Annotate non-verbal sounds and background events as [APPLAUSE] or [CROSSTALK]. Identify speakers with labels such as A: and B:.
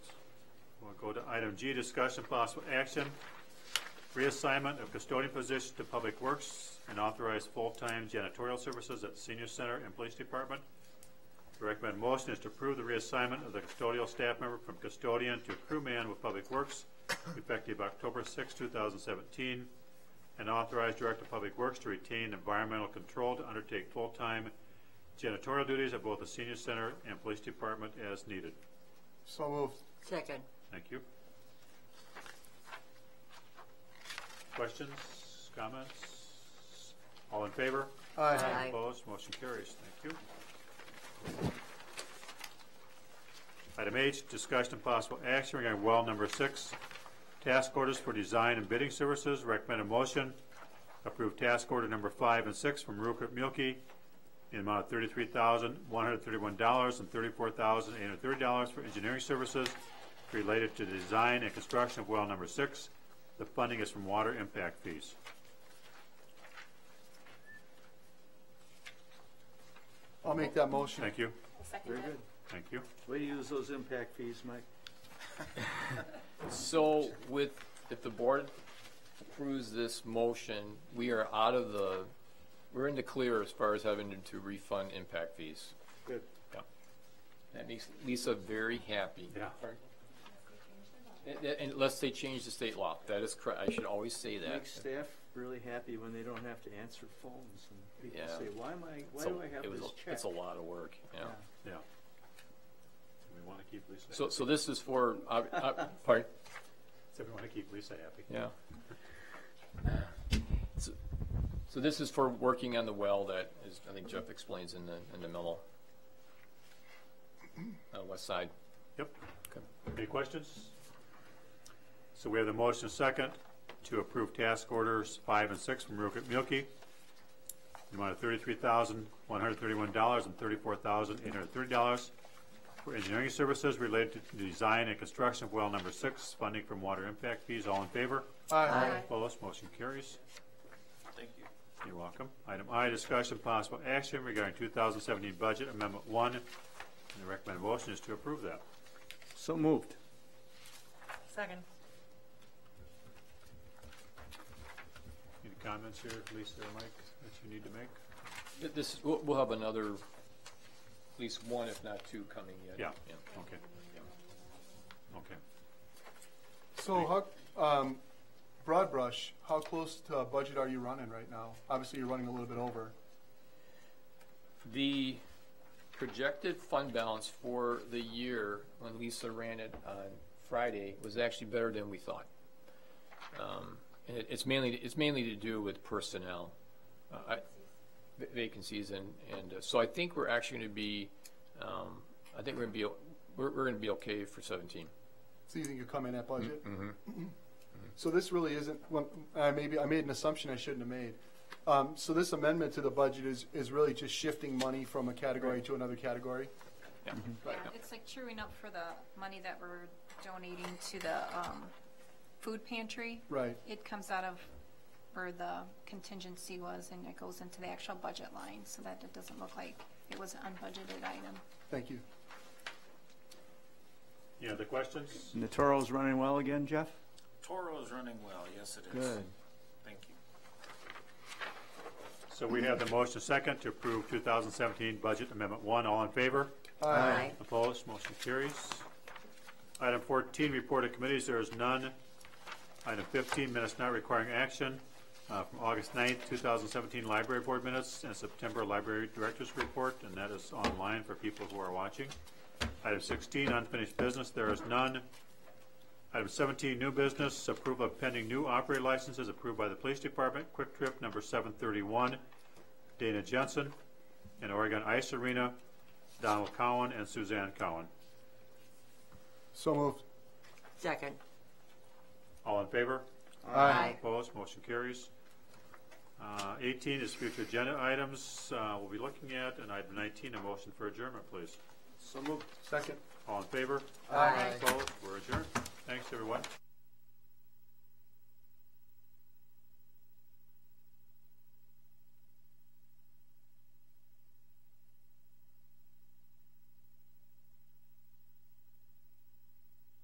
A: Go to item G, discussion possible action, reassignment of custodian position to Public Works and authorize full-time janitorial services at Senior Center and Police Department. The recommended motion is to approve the reassignment of the custodial staff member from custodian to crewman with Public Works effective October 6, 2017, and authorize Director of Public Works to retain environmental control to undertake full-time janitorial duties at both the Senior Center and Police Department as needed.
B: So moved.
C: Second.
A: Thank you. Questions, comments? All in favor?
C: Aye.
A: Opposed, motion carries. Thank you. Item H, discussion and possible action regarding well number six, task orders for design and bidding services. Recommended motion, approve task order number five and six from Rupert Milkie in the amount of thirty-three thousand, one hundred thirty-one dollars and thirty-four thousand, eight hundred thirty dollars for engineering services related to the design and construction of well number six. The funding is from water impact fees.
B: I'll make that motion.
A: Thank you,
D: Very good.
A: thank you.
D: Way to use those impact fees, Mike.
E: So with, if the board approves this motion, we are out of the, we're in the clear as far as having to refund impact fees.
D: Good.
E: Yeah. That makes Lisa very happy.
A: Yeah.
E: And- and- Unless they change the state law. That is correct. I should always say that.
D: Makes staff really happy when they don't have to answer phones and people
E: Yeah.
D: say, why am I, why
E: So
D: do I have
E: it was
D: this
E: a-
D: check?
E: It's a lot of work, yeah.
A: Yeah.
D: Yeah.
A: We want to keep Lisa.
E: So, so this is for, uh, uh, [LAUGHS] pardon?
A: So we want to keep Lisa happy.
E: Yeah. So so this is for working on the well that is, I think Jeff explains in the, in the memo. Uh, west side.
A: Yep.
E: Okay.
A: Any questions? So we have the motion second to approve task orders five and six from Rupert Milkie. The amount of thirty-three thousand, one hundred thirty-one dollars and thirty-four thousand, eight hundred thirty dollars for engineering services related to the design and construction of well number six, funding from water impact fees. All in favor?
B: Aye.
A: Opposed, motion carries. Thank you. You're welcome. Item I, discussion possible action regarding 2017 budget amendment one. And the recommended motion is to approve that.
D: So moved.
C: Second.
A: Any comments here, Lisa or Mike, that you need to make?
E: Th- This, we'll, we'll have another, at least one, if not two, coming yet.
A: Yeah. Okay. Okay.
B: So how, um, broad brush, how close to a budget are you running right now? Obviously, you're running a little bit over.
E: The projected fund balance for the year, when Lisa ran it on Friday, was actually better than we thought. Um, And it- it's mainly, it's mainly to do with personnel, uh, I- va- vacancies, and, and uh, so I think we're actually going to be, um, I think we're going to be, o- we're, we're going to be okay for 17.
B: So you think you'll come in at budget? So this really isn't, well, I maybe, I made an assumption I shouldn't have made. Um, so this amendment to the budget is, is really just shifting money from a category to another category?
E: Yeah.
F: Yeah, it's like truing up for the money that we're donating to the um, food pantry.
B: Right.
F: It comes out of where the contingency was and it goes into the actual budget line so that it doesn't look like it was an unbudgeted item.
B: Thank you.
A: Any other questions?
D: Natoro's running well again, Jeff?
G: Toro's running well, yes it is.
D: Good.
G: Thank you.
A: So we have the motion second to approve 2017 budget amendment one. All in favor?
C: Aye.
A: Opposed, motion carries. Item 14, report of committees, there is none. Item 15, minutes not requiring action uh, from August 9th, 2017, Library Board Minutes, and September Library Director's Report, and that is online for people who are watching. Item 16, unfinished business, there is none. Item 17, new business, approval of pending new operator licenses approved by the Police Department, Quick Trip number 731, Dana Jensen, and Oregon Ice Arena, Donald Cowan and Suzanne Cowan.
B: So moved.
C: Second.
A: All in favor?
C: Aye.
A: Opposed? Motion carries. Uh, 18 is future agenda items uh, we'll be looking at, and item 19, a motion for adjournment, please.
D: So moved.
B: Second.
A: All in favor?
C: Aye.
A: Opposed?